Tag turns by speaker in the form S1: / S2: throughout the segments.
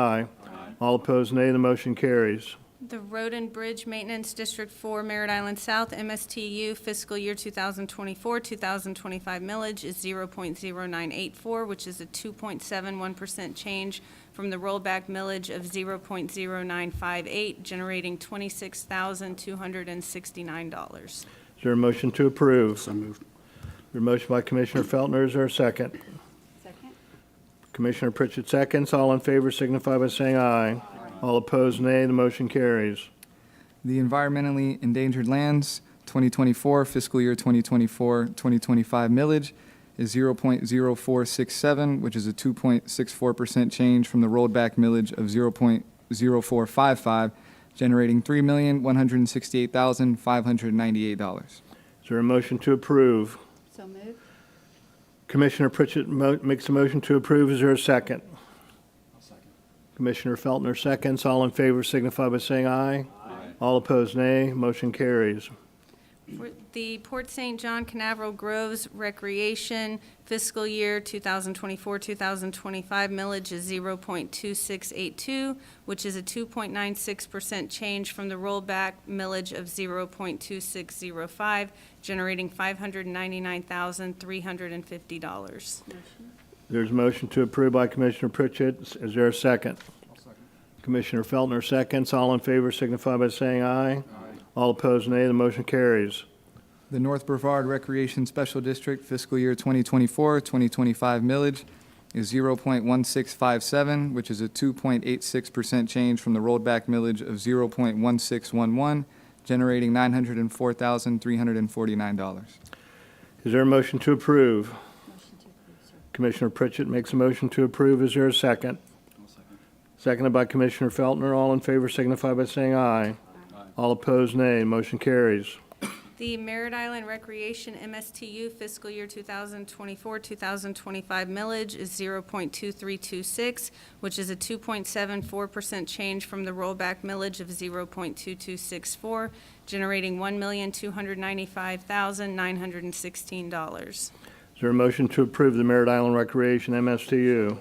S1: Aye. All opposed, nay. The motion carries.
S2: The Road and Bridge Maintenance District 4, Merritt Island South, MSTU, fiscal year 2024, 2025 millage is 0.0984, which is a 2.71% change from the rollback millage of 0.0958, generating $26,269.
S1: Is there a motion to approve?
S3: So moved.
S1: Your motion by Commissioner Felton, is there a second?
S2: Second.
S1: Commissioner Pritchett seconds. All in favor signify by saying aye. All opposed, nay. The motion carries.
S4: The Environmentally Endangered Lands 2024 fiscal year 2024 2025 millage is 0.0467, which is a 2.64% change from the rolled back millage of 0.0455, generating $3,168,598.
S1: Is there a motion to approve?
S5: So moved.
S1: Commissioner Pritchett mo- makes a motion to approve. Is there a second? Commissioner Felton, seconds. All in favor signify by saying aye. All opposed, nay. Motion carries.
S2: For The Port St. John Canaveral Groves Recreation fiscal year 2024-2025 millage is 0.2682, which is a 2.96% change from the rollback millage of 0.2605, generating $599,350.
S1: There's a motion to approve by Commissioner Pritchett. Is there a second? Commissioner Felton, seconds. All in favor signify by saying aye. All opposed, nay. The motion carries.
S4: The North Brevard Recreation Special District fiscal year 2024-2025 millage is 0.1657, which is a 2.86% change from the rolled back millage of 0.1611, generating $904,349.
S1: Is there a motion to approve?
S5: Motion to approve, sir.
S1: Commissioner Pritchett makes a motion to approve. Is there a second? Seconded by Commissioner Felton. All in favor signify by saying aye. All opposed, nay. Motion carries.
S2: The Merritt Island Recreation MSTU fiscal year 2024-2025 millage is 0.2326, which is a 2.74% change from the rollback millage of 0.2264, generating $1,295,916.
S1: Is there a motion to approve the Merritt Island Recreation MSTU?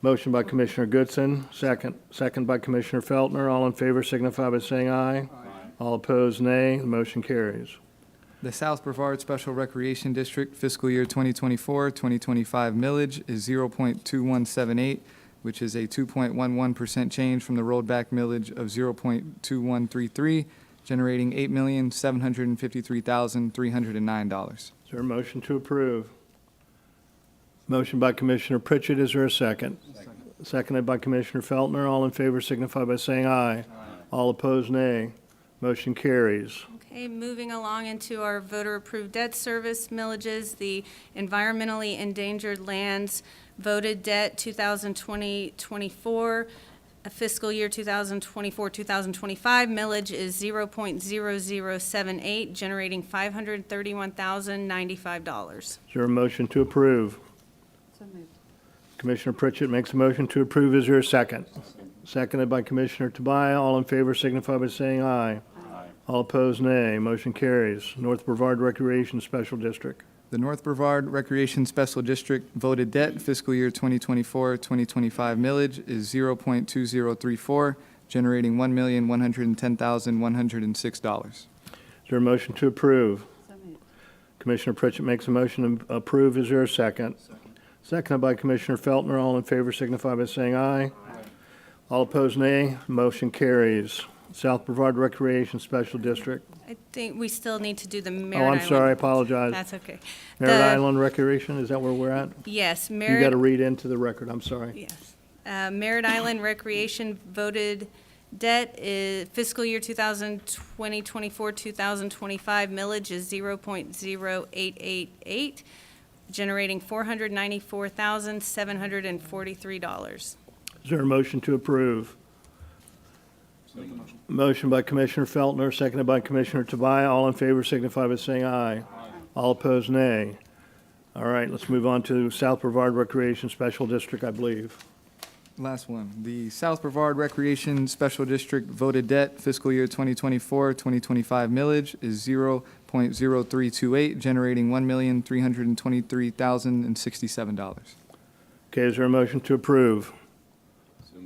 S1: Motion by Commissioner Goodson, second, second by Commissioner Feltner. All in favor signify by saying aye. All opposed, nay. The motion carries.
S4: The South Brevard Special Recreation District fiscal year 2024-2025 millage is 0.2178, which is a 2.11% change from the rolled back millage of 0.2133, generating $8,753,309.
S1: Is there a motion to approve? Motion by Commissioner Pritchett, is there a second? Seconded by Commissioner Feltner. All in favor signify by saying aye. All opposed, nay. Motion carries.
S2: Okay, moving along into our voter-approved debt service millages, the environmentally endangered lands voted debt 2020-24, uh, fiscal year 2024-2025 millage is 0.0078, generating $531,095.
S1: Is there a motion to approve?
S5: So moved.
S1: Commissioner Pritchett makes a motion to approve. Is there a second? Seconded by Commissioner Tobias. All in favor signify by saying aye. All opposed, nay. Motion carries. North Brevard Recreation Special District.
S4: The North Brevard Recreation Special District voted debt fiscal year 2024-2025 millage is 0.2034, generating $1,110,106.
S1: Is there a motion to approve?
S5: So moved.
S1: Commissioner Pritchett makes a motion to approve. Is there a second? Seconded by Commissioner Feltner. All in favor signify by saying aye. All opposed, nay. Motion carries. South Brevard Recreation Special District.
S2: I think we still need to do the Merritt
S1: Oh, I'm
S2: Island-
S1: sorry, I apologize.
S2: That's okay.
S1: Merritt
S2: The-
S1: Island Recreation, is that where we're at?
S2: Yes,
S1: You got
S2: Merritt
S1: to read into the record, I'm sorry.
S2: Yes. Uh, Merritt Island Recreation voted debt is fiscal year 2020, 24, 2025 millage is 0.0888, generating $494,743.
S1: Is there a motion to approve? Motion by Commissioner Feltner, seconded by Commissioner Tobias. All in favor signify by saying aye. All opposed, nay. All right, let's move on to South Brevard Recreation Special District, I believe.
S4: Last one. The South Brevard Recreation Special District voted debt fiscal year 2024-2025 millage is 0.0328, generating $1,323,067.
S1: Okay, is there a motion to approve?